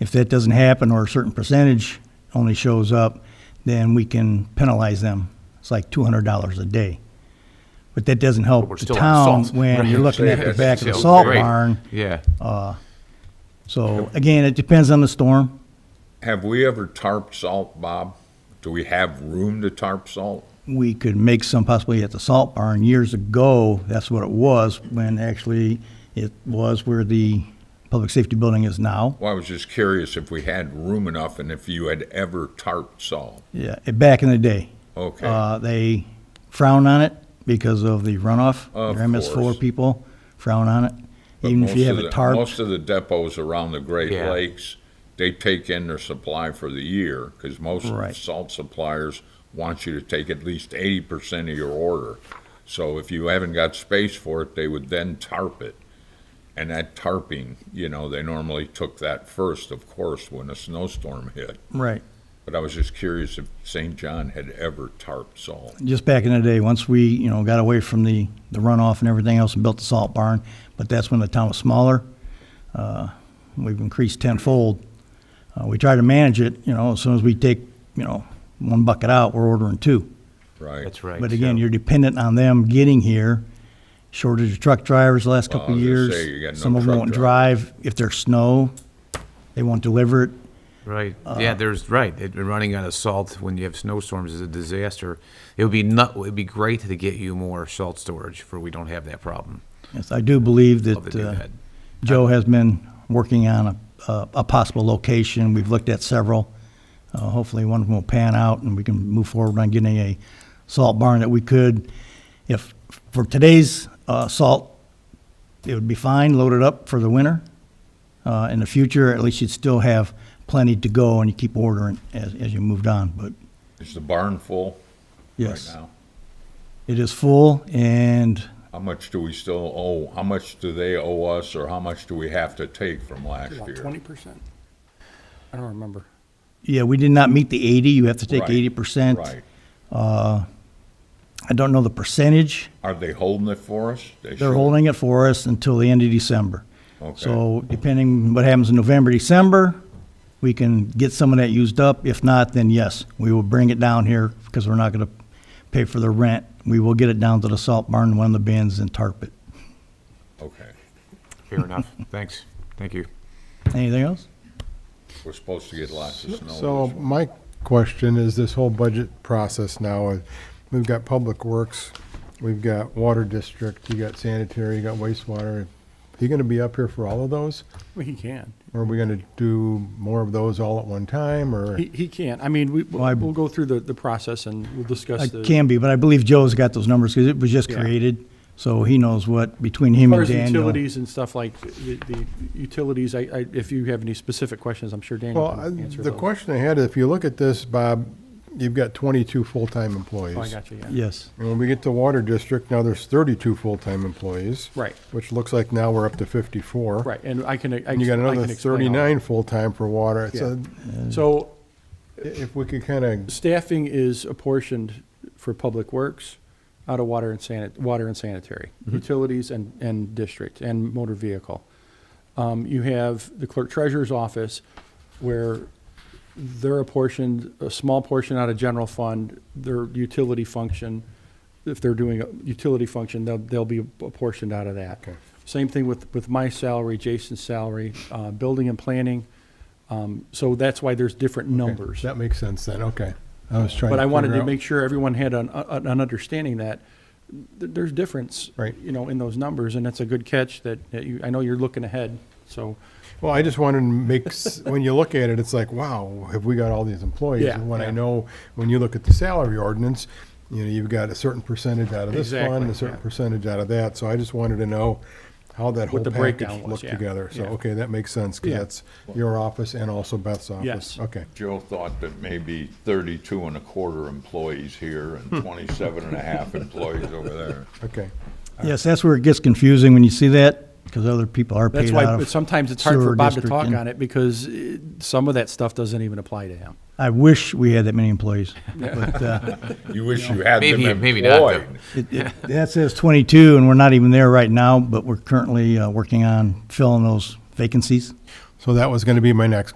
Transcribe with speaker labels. Speaker 1: If that doesn't happen, or a certain percentage only shows up, then we can penalize them. It's like two hundred dollars a day. But that doesn't help
Speaker 2: we're
Speaker 1: the
Speaker 2: still on
Speaker 1: town
Speaker 2: salt.
Speaker 1: when you're looking at the
Speaker 2: Right.
Speaker 1: back of the
Speaker 2: So,
Speaker 1: salt
Speaker 2: right.
Speaker 1: barn. Uh,
Speaker 2: Yeah.
Speaker 1: So again, it depends on the storm.
Speaker 3: Have we ever tarp salt, Bob? Do we have room to tarp salt?
Speaker 1: we could make some possibly at the salt barn. Years ago, that's what it was, when actually it was where the public safety building is now.
Speaker 3: Well, I was just curious if we had room enough and if you had ever tarp salt.
Speaker 1: Yeah, eh, back in the day.
Speaker 3: Okay.
Speaker 1: Uh, they frown on it because of the runoff.
Speaker 3: Of
Speaker 1: Your MS4
Speaker 3: course.
Speaker 1: people frown on it.
Speaker 3: But
Speaker 1: Even if
Speaker 3: most
Speaker 1: you have a
Speaker 3: of the-
Speaker 1: tarp,
Speaker 3: Most of the depots around the Great
Speaker 2: Yeah.
Speaker 3: Lakes, they take in their supply for the year, because most
Speaker 1: Right.
Speaker 3: salt suppliers want you to take at least eighty percent of your order. So if you haven't got space for it, they would then tarp it. And that tarping, you know, they normally took that first, of course, when a snowstorm hit.
Speaker 1: right,
Speaker 3: But I was just curious if St. John had ever tarped salt.
Speaker 1: just back in the day, once we, you know, got away from the, the runoff and everything else and built the salt barn, but that's when the town was smaller. Uh, We've increased tenfold. Uh, We try to manage it, you know, as soon as we take, you know, one bucket out, we're ordering two.
Speaker 3: Right.
Speaker 2: That's right.
Speaker 1: But again,
Speaker 2: so-
Speaker 1: you're dependent on them getting here. Shortage of truck drivers the last
Speaker 3: Well, I
Speaker 1: couple of
Speaker 3: was gonna
Speaker 1: years.
Speaker 3: say, you got no
Speaker 1: Some of them
Speaker 3: truck
Speaker 1: won't drive. If there's snow, they won't deliver it.
Speaker 2: Right,
Speaker 1: uh,
Speaker 2: yeah, there's, right, It- running out of salt when you have snowstorms is a disaster. It would be nut, it'd be great to get you more salt storage for we don't have that problem.
Speaker 1: Yes, I do believe
Speaker 2: Love to
Speaker 1: that
Speaker 2: do
Speaker 1: uh,
Speaker 2: that.
Speaker 1: Joe has been working on a, a a possible location. We've looked at several. Uh, Hopefully, one of them will pan out and we can move forward on getting a salt barn that we could. If, for today's uh, salt, it would be fine, load it up for the winter. Uh, In the future, at least you'd still have plenty to go and you keep ordering as, as you moved on, but
Speaker 3: Is the barn full right
Speaker 1: yes.
Speaker 3: now?
Speaker 1: It is full and
Speaker 3: How much do we still owe, how much do they owe us, or how much do we have to take from last
Speaker 4: About
Speaker 3: year?
Speaker 4: twenty percent? I don't remember.
Speaker 1: Yeah, we did not meet the 80. You have to take
Speaker 3: Right,
Speaker 1: eighty percent.
Speaker 3: Right.
Speaker 1: I don't know the percentage.
Speaker 3: Are they holding it for us? They
Speaker 1: They're
Speaker 3: should.
Speaker 1: holding it for us until the end of December.
Speaker 3: Okay.
Speaker 1: So depending what happens in November, December, we can get some of that used up. If not, then yes, we will bring it down here because we're not going to pay for the rent. We will get it down to the salt barn, in one of the bins and tarp it.
Speaker 3: Okay.
Speaker 2: Fair enough, thanks, thank you.
Speaker 1: Anything else?
Speaker 3: We're supposed to get lots of snow.
Speaker 5: So
Speaker 3: this-
Speaker 5: my question is this whole budget process now, uh, we've got Public Works, we've got Water District, you got sanitary, you got wastewater. Are you gonna be up here for all of those?
Speaker 4: Well, he can.
Speaker 5: Or are we gonna do more of those all at one time or?
Speaker 4: He, he can. I mean, we,
Speaker 1: I-
Speaker 4: we'll we'll go through the, the process and we'll discuss
Speaker 1: It
Speaker 4: the.
Speaker 1: can be, but I believe Joe's got those numbers because it was just
Speaker 4: Yeah.
Speaker 1: created. So he knows what, between him
Speaker 4: As far
Speaker 1: and
Speaker 4: as
Speaker 1: Daniel.
Speaker 4: utilities and stuff like, the, the utilities, I, I, if you have any specific questions, I'm sure Daniel
Speaker 5: Well,
Speaker 4: can
Speaker 5: I-
Speaker 4: answer those.
Speaker 5: the question I had, if you look at this, Bob, you've got twenty-two full-time employees.
Speaker 4: Oh, I got you, yeah.
Speaker 1: Yes.
Speaker 5: And when we get to Water District, now there's thirty-two full-time employees.
Speaker 4: Right.
Speaker 5: Which looks like now we're up to fifty-four.
Speaker 4: Right, and I can, I
Speaker 5: And you got
Speaker 4: can- I
Speaker 5: another
Speaker 4: can explain all that.
Speaker 5: thirty-nine full-time for water. So
Speaker 4: So
Speaker 5: if we could kind of,
Speaker 4: staffing is apportioned for public works, out of water and sanit, water and sanitary, utilities and, and district, and motor vehicle. Um, you have the clerk treasurer's office where they're apportioned, a small portion out of general fund, their utility function. If they're doing a utility function, they'll, they'll be apportioned out of that.
Speaker 5: Okay.
Speaker 4: Same thing with, with my salary, Jason's salary, uh, building and planning. Um, so that's why there's different numbers.
Speaker 5: that makes sense then, okay. I was trying to
Speaker 4: But I wanted
Speaker 5: figure
Speaker 4: to
Speaker 5: out-
Speaker 4: make sure everyone had an, uh, an an understanding that th- there's difference,
Speaker 5: Right.
Speaker 4: you know, in those numbers, and that's a good catch that, that you, I know you're looking ahead, so,
Speaker 5: Well, I just wanted to make, s- when you look at it, it's like, wow, have we got all these employees?
Speaker 4: Yeah,
Speaker 5: And when I
Speaker 4: yeah.
Speaker 5: know, when you look at the salary ordinance, you know, you've got a certain percentage out of this fund,
Speaker 4: Exactly,
Speaker 5: a certain
Speaker 4: yeah.
Speaker 5: percentage out of that. So I just wanted to know how that whole
Speaker 4: the
Speaker 5: package
Speaker 4: breakdown was,
Speaker 5: looked
Speaker 4: yeah,
Speaker 5: together. So,
Speaker 4: yeah.
Speaker 5: okay, that makes sense, because
Speaker 4: Yeah.
Speaker 5: that's your office and also Beth's office.
Speaker 4: Yes.
Speaker 5: Okay.
Speaker 3: Joe thought that maybe thirty-two and a quarter employees here and twenty-seven and a half employees over there.
Speaker 5: Okay,
Speaker 1: Yes, that's where it gets confusing when you see that because other people are
Speaker 4: that's
Speaker 1: paid out
Speaker 4: why
Speaker 1: of.
Speaker 4: sometimes it's hard for
Speaker 1: sewer
Speaker 4: Bob to
Speaker 1: district
Speaker 4: talk
Speaker 1: and-
Speaker 4: on it, because eh, some of that stuff doesn't even apply to him.
Speaker 1: I wish we had that many employees, but, uh,
Speaker 3: You wish you had them
Speaker 2: Maybe- maybe not, though.
Speaker 3: employed.
Speaker 1: It- it- That says 22, and we're not even there right now, but we're currently uh, working on filling those vacancies.
Speaker 5: so that was going to be my next